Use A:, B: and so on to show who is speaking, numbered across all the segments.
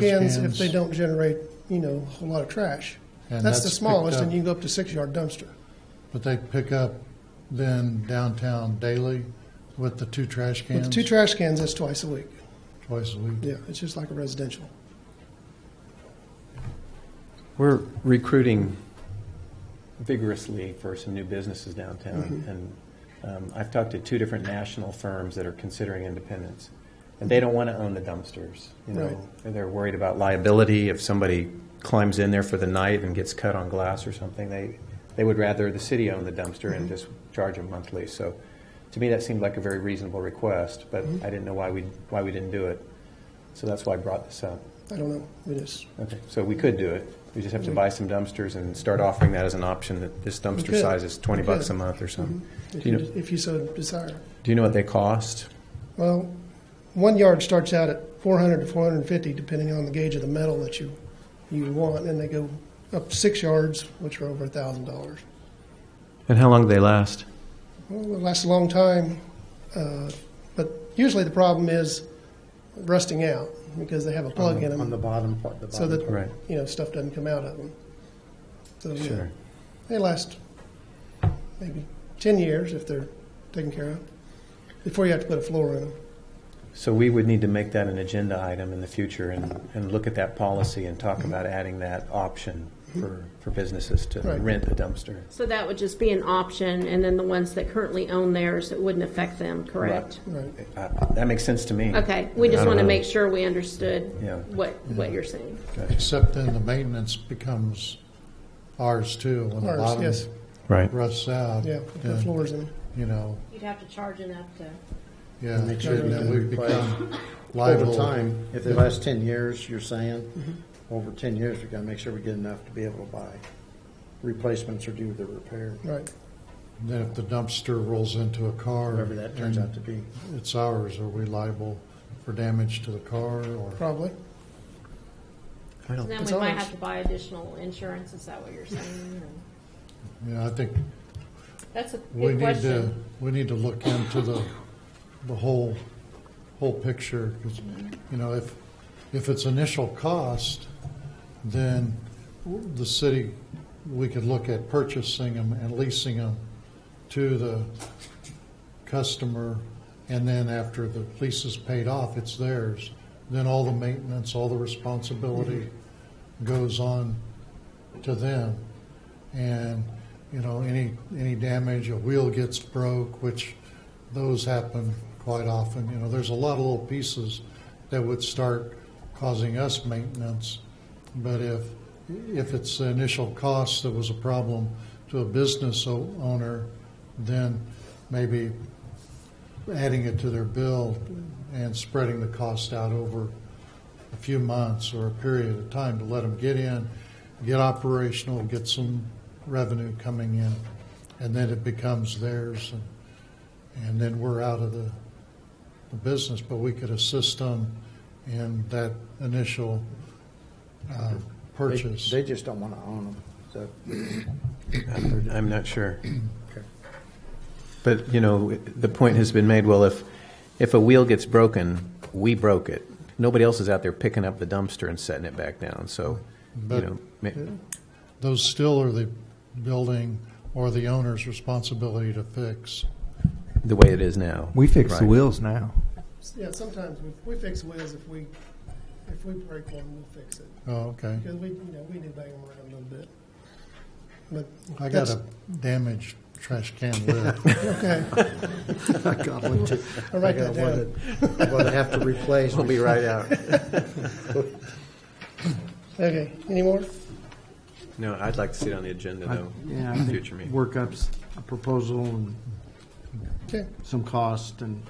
A: cans
B: cans.
A: if they don't generate, you know, a whole lot of trash.
B: And
A: That's
B: that's
A: the smallest,
B: picked
A: and
B: up.
A: you can go up to six-yard dumpster.
B: But they pick up then downtown daily with the two trash
A: With
B: cans
A: the two trash cans, that's twice a week.
B: twice a week.
A: Yeah, it's just like a residential.
C: We're recruiting vigorously for some new businesses downtown, and um, I've talked to two different national firms that are considering independence, and they don't want to own the dumpsters, you
A: Right.
C: know? And They're worried about liability if somebody climbs in there for the night and gets cut on glass or something. They, they would rather the city own the dumpster and just charge them monthly. So to me, that seemed like a very reasonable request, but I didn't know why we, why we didn't do it. So that's why I brought this up.
A: I don't know, it is.
C: Okay, so we could do it. We just have
A: Mm-hmm.
C: to buy some dumpsters and start offering that as an option, that this dumpster
A: could.
C: size is 20
A: We
C: bucks
A: could.
C: a
A: Mm-hmm.
C: month or something.
A: If
C: Do you
A: you,
C: know,
A: if you so desire.
C: do you know what they cost?
A: Well, one yard starts out at 400 to 450, depending on the gauge of the metal that you, you want, and they go up six yards, which are over a thousand dollars.
C: And how long do they last?
A: Well, it lasts a long time, uh, but usually the problem is rusting out because they have a plug in them.
D: On the bottom part, the bottom.
A: so that
C: Right.
A: you know stuff doesn't come out of them. So yeah,
C: Sure.
A: they last maybe ten years if they're taken care of before you have to put a floor in them.
C: So we would need to make that an agenda item in the future and, and look at that policy and talk about adding that option for, for businesses to
A: Mm-hmm. Right.
C: rent a dumpster.
E: So that would just be an option, and then the ones that currently own theirs, it wouldn't affect them, correct?
A: Right.
C: Uh, That makes sense to me.
E: Okay, we just
C: I don't
E: want to
C: know.
E: make sure we understood
C: Yeah.
E: what, what you're saying.
B: Except then the maintenance becomes ours too. When the
A: Ours,
B: bottom
A: yes.
C: Right.
B: rusts out,
A: Yeah, put the
B: then,
A: floors in.
B: you know,
E: You'd have to charge enough to.
B: yeah,
D: And they should
B: then
D: then
B: we
D: replace
B: become liable.
D: Over time, if they last ten years, you're saying,
C: Mm-hmm.
D: over ten years, we gotta make sure we get enough to be able to buy replacements or do the repair,
A: Right.
B: Then if the dumpster rolls into a car,
D: whatever that turns out to be.
B: it's ours. Are we liable for damage to the car or?
A: Probably.
D: I don't.
E: Then
A: It's
E: we might
A: ours.
E: have to buy additional insurance, is that what you're saying?
B: Yeah, I think
E: That's a
B: We
E: good
B: need to,
E: question.
B: we need to look into the, the whole, whole picture, 'cause, you know, if, if it's initial cost, then the city, we could look at purchasing them and leasing them to the customer, and then after the lease is paid off, it's theirs. Then all the maintenance, all the responsibility
E: Mm-hmm.
B: goes on to them. And, you know, any, any damage, a wheel gets broke, which those happen quite often. You know, there's a lot of little pieces that would start causing us maintenance. But if, if it's the initial cost that was a problem to a business o- owner, then maybe adding it to their bill and spreading the cost out over a few months or a period of time to let them get in, get operational, get some revenue coming in, and then it becomes theirs, and, and then we're out of the, the business. But we could assist them in that initial uh,
D: They-
B: purchase.
D: They just don't wanna own them, so.
C: I'm not sure.
D: Okay.
C: But, you know, the point has been made, well, if, if a wheel gets broken, we broke it. Nobody else is out there picking up the dumpster and setting it back down, so, you
B: But-
C: know, ma-
B: Those still are the building or the owner's responsibility to fix.
C: the way it is now.
F: We fix the
C: Right.
F: wheels now.
A: Yeah, sometimes we, we fix wheels if we, if we break one, we'll fix it.
B: Oh, okay.
A: Because we, you know, we do bang them around a little bit. But
B: I got
A: that's-
B: a damaged trash can lid.
A: Okay,
D: I got one too.
A: I'll
D: I
A: write
D: got
A: that
D: one
A: down.
D: that I'm gonna have to replace.
C: We'll be right out.
A: Okay, any more?
C: No, I'd like to see it on the agenda, though,
D: Yeah, I
C: in
D: think
C: future meeting.
D: Work up s- a proposal and
A: Okay,
D: some cost and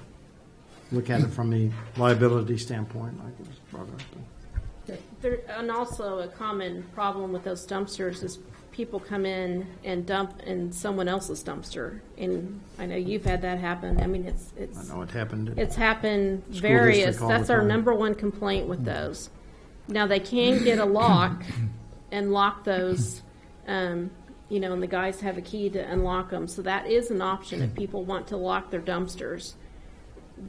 D: look at it from a liability standpoint, like it was brought up.
E: There, and also a common problem with those dumpsters is people come in and dump in someone else's dumpster. And I know you've had that happen. I mean, it's,
D: I
E: it's,
D: know it happened.
E: it's happened
D: School
E: various,
D: district all
E: that's
D: the
E: our
D: time.
E: number one complaint with those. Now, they can get a lock and lock those, um, you know, and the guys have a key to unlock them. So that is an option if people want to lock their dumpsters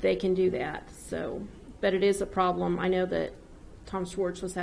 E: they can do that, so, but it is a problem. I know that Tom Schwartz was having